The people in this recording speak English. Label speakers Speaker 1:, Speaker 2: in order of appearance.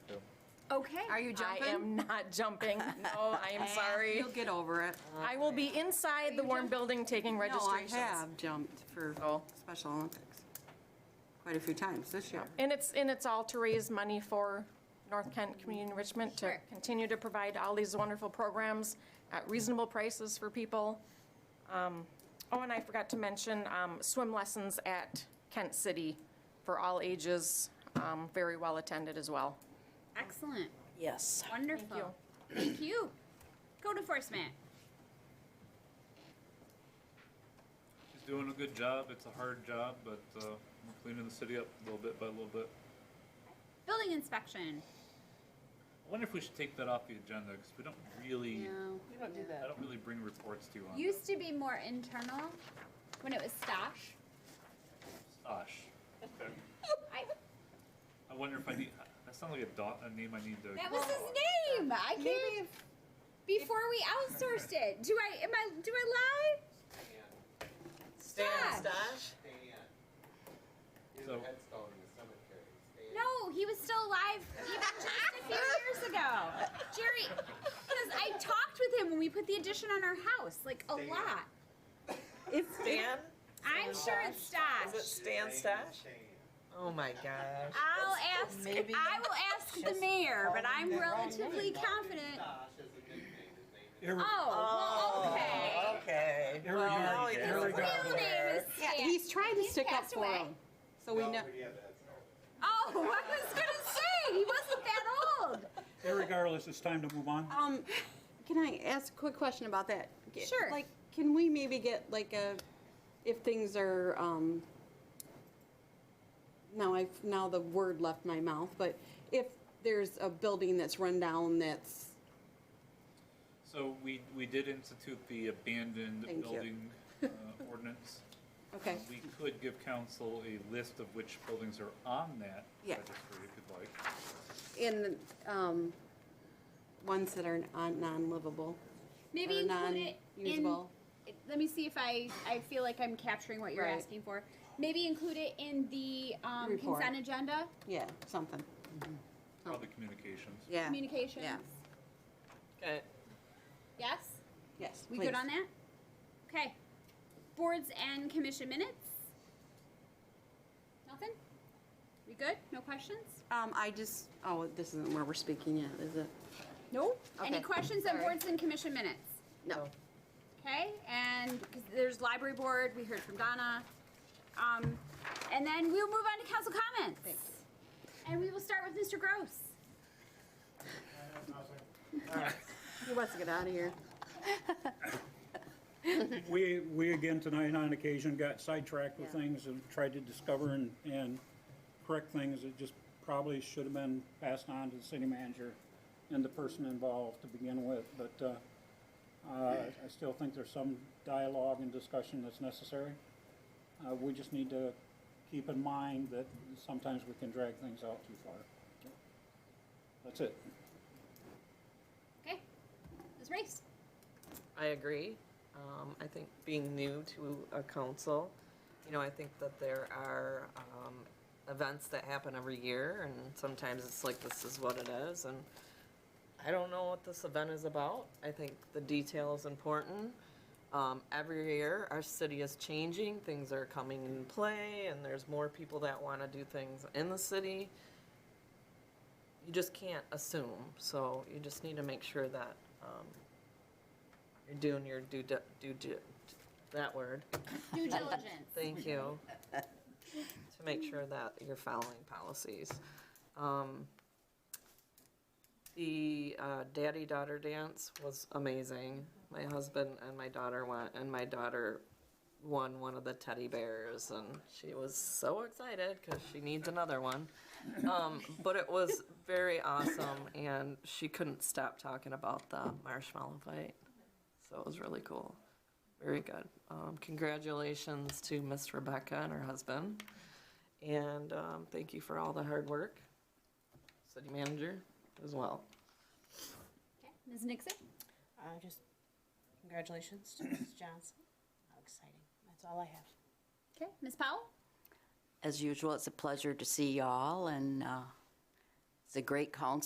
Speaker 1: Okay.
Speaker 2: Are you
Speaker 3: I
Speaker 2: jumping?
Speaker 3: am not jumping. No, I am sorry.
Speaker 2: You'll get over it.
Speaker 3: I will be inside the warm building taking registrations.
Speaker 2: No, I have jumped for
Speaker 3: Oh.
Speaker 2: Special Olympics quite a few times this year.
Speaker 3: And it's, and it's all to raise money for North Kent Community Enrichment to
Speaker 1: Sure.
Speaker 3: continue to provide all these wonderful programs at reasonable prices for people. Um, Oh, and I forgot to mention um, swim lessons at Kent City for all ages, um, very well attended as well.
Speaker 1: Excellent.
Speaker 4: Yes.
Speaker 1: Wonderful. Thank you. Code enforcement.
Speaker 5: She's doing a good job. It's a hard job, but uh, we're cleaning the city up a little bit by a little bit.
Speaker 1: Building inspection.
Speaker 5: I wonder if we should take that off the agenda because we don't really,
Speaker 1: No.
Speaker 5: I don't really bring reports to you on
Speaker 1: Used to be more internal when it was stash.
Speaker 5: Osh.
Speaker 1: I,
Speaker 5: I wonder if I need. That sounds like a, dot, a name I need to.
Speaker 1: that was his name. I can't. Before we outsourced it. Do I, am I, do I lie?
Speaker 4: Stan
Speaker 1: Stash.
Speaker 4: Stash?
Speaker 6: Dan. Here's
Speaker 5: So-
Speaker 6: uh, a headstone in the cemetery. Stan.
Speaker 1: No, he was still alive even just a few years ago. Jerry, because I talked with him when we put the addition on our house, like a lot.
Speaker 4: Stan?
Speaker 1: I'm sure it's
Speaker 4: Is
Speaker 1: Stash.
Speaker 4: it Stan Stash?
Speaker 6: Dan.
Speaker 4: Oh my gosh.
Speaker 1: I'll ask, I will ask the mayor, but I'm relatively confident.
Speaker 6: Josh is a nickname. His name is.
Speaker 7: Here we,
Speaker 1: Oh, well, okay.
Speaker 4: Okay.
Speaker 7: here we
Speaker 4: now
Speaker 7: are.
Speaker 4: he
Speaker 7: Here we
Speaker 4: doesn't
Speaker 7: go.
Speaker 1: Real name is
Speaker 2: Yeah,
Speaker 1: Stan.
Speaker 2: he's trying to
Speaker 1: He's
Speaker 2: stick up
Speaker 1: passed
Speaker 2: for
Speaker 1: away.
Speaker 2: him. So we
Speaker 6: No,
Speaker 2: know,
Speaker 6: but yeah, that's all.
Speaker 1: Oh, I was gonna say, he wasn't that old.
Speaker 7: Irregardless, it's time to move on.
Speaker 2: um, can I ask a quick question about that? Get-
Speaker 1: Sure.
Speaker 2: Like, can we maybe get like a, if things are, um, now I've, now the word left my mouth, but if there's a building that's run down that's,
Speaker 5: So we we did institute the abandoned
Speaker 2: Thank you.
Speaker 5: building uh, ordinance.
Speaker 2: okay,
Speaker 5: We could give council a list of which buildings are on that
Speaker 2: Yeah. Oh.
Speaker 5: registry if you'd like.
Speaker 2: in, um, ones that are non- non-livable.
Speaker 1: Maybe
Speaker 2: or
Speaker 1: include it in.
Speaker 2: non-usable.
Speaker 1: Let me see if I, I feel like I'm capturing what you're
Speaker 2: Right.
Speaker 1: asking for. Maybe include it in the um,
Speaker 2: Report.
Speaker 1: consent agenda,
Speaker 2: Yeah, something.
Speaker 5: Probably communications.
Speaker 7: Yeah.
Speaker 1: communications.
Speaker 2: Yeah.
Speaker 4: Okay.
Speaker 1: Yes?
Speaker 2: Yes,
Speaker 1: We
Speaker 2: please.
Speaker 1: good on that? Okay. Boards and commission minutes? Nothing? We good? No questions?
Speaker 2: Um, I just, oh, this isn't where we're speaking yet, is it?
Speaker 1: No. Any
Speaker 2: Okay.
Speaker 1: questions on boards and commission minutes?
Speaker 2: No.
Speaker 1: Okay, and 'cause there's library board, we heard from Donna. Um, and then we'll move on to council comments. And we will start with Mr. Gross.
Speaker 2: He wants to get out of here.
Speaker 7: We, we again tonight on occasion got sidetracked with
Speaker 2: Yeah.
Speaker 7: things and tried to discover and, and correct things that just probably should have been passed on to the city manager and the person involved to begin with, but, uh, uh, I still think there's some dialogue and discussion that's necessary. Uh, we just need to keep in mind that sometimes we can drag things out too far. That's it.
Speaker 1: Okay, Ms. Race.
Speaker 4: I agree. Um, I think being new to a council, you know, I think that there are, um, events that happen every year and sometimes it's like, this is what it is and I don't know what this event is about. I think the detail is important. Um, every year, our city is changing, things are coming in play and there's more people that wanna do things in the city. You just can't assume, so you just need to make sure that, um, you're doing your due, di- due, di- that word,
Speaker 1: Due diligence.
Speaker 4: thank you, to make sure that you're following policies. Um, The uh, daddy-daughter dance was amazing. My husband and my daughter went, and my daughter won one of the teddy bears, and she was so excited because she needs another one. Um, But it was very awesome, and she couldn't stop talking about the marshmallow fight. So it was really cool. Very good. Um, congratulations to Miss Rebecca and her husband. And um, thank you for all the hard work. City manager as well.
Speaker 1: Okay, Ms. Nixon.
Speaker 8: Uh, just congratulations to Mrs. Johnson. How exciting. That's all I have.
Speaker 1: Okay, Ms. Powell.
Speaker 9: As usual, it's a pleasure to see y'all, and uh, it's a great council